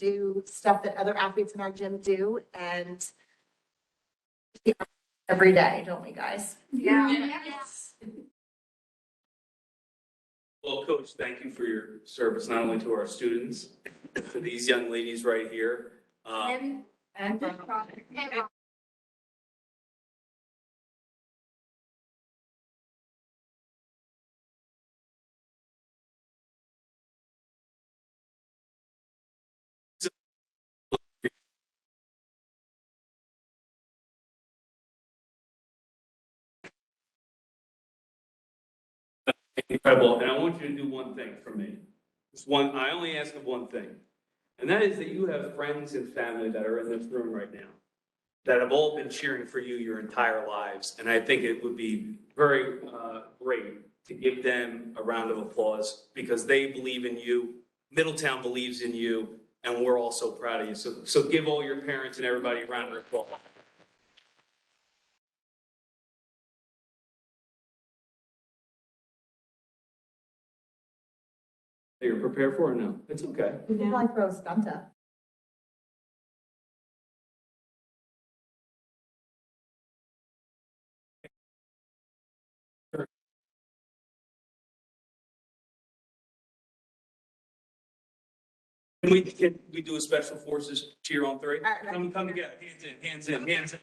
do stuff that other athletes in our gym do and yeah, every day, don't we, guys? Well, Coach, thank you for your service, not only to our students, to these young ladies right here. Uh, And Incredible, and I want you to do one thing for me. Just one, I only ask of one thing. And that is that you have friends and family that are in this room right now that have all been cheering for you your entire lives. And I think it would be very uh, great to give them a round of applause because they believe in you, Middletown believes in you, and we're all so proud of you. So, so give all your parents and everybody a round of applause. That you're prepared for or no? It's okay. like Rose Gunta. Can we, can we do a special forces cheer on three? right, right. Come, come together, hands in, hands in, hands in.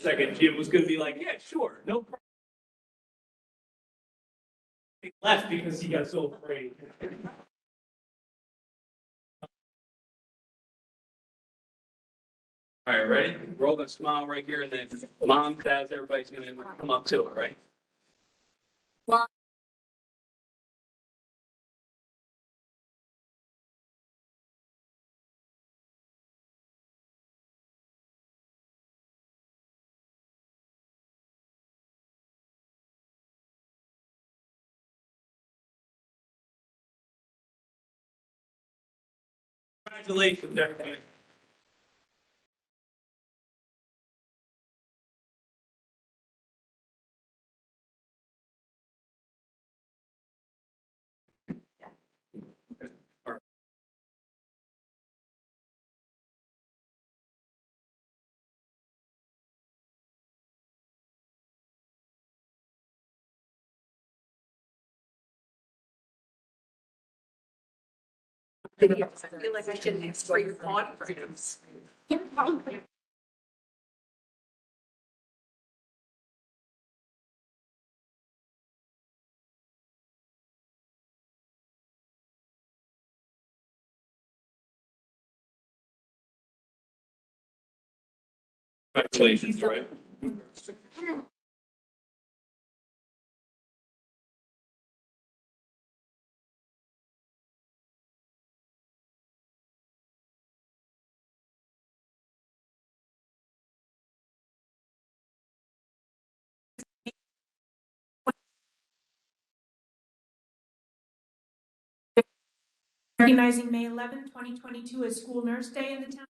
Second, Jim was gonna be like, yeah, sure, no problem. He Left because he got so afraid. All right, ready? Roll that smile right here and then mom, dad, everybody's gonna come up to it, right? One. Congratulations, everybody. I feel like I should ask for your conference. Congratulations, right? Recognizing May 11, 2022 as School Nurse Day in the town.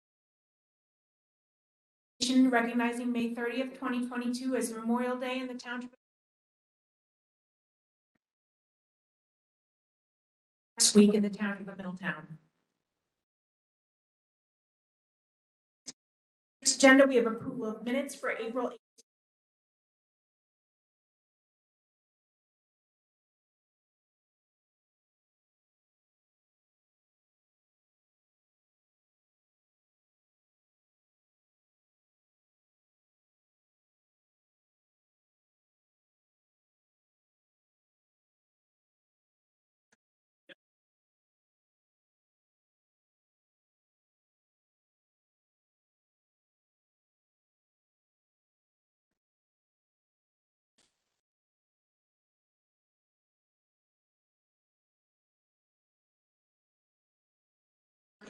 Recognition Recognizing May 30th, 2022 as Memorial Day in the township. Next week in the township of Middletown. Next agenda, we have approval of minutes for April 8th.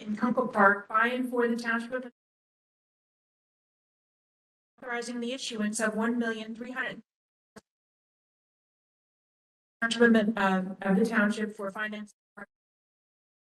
in Kunkel Park by and for the township of authorizing the issuance of one million three hundred township of, uh, of the township for finance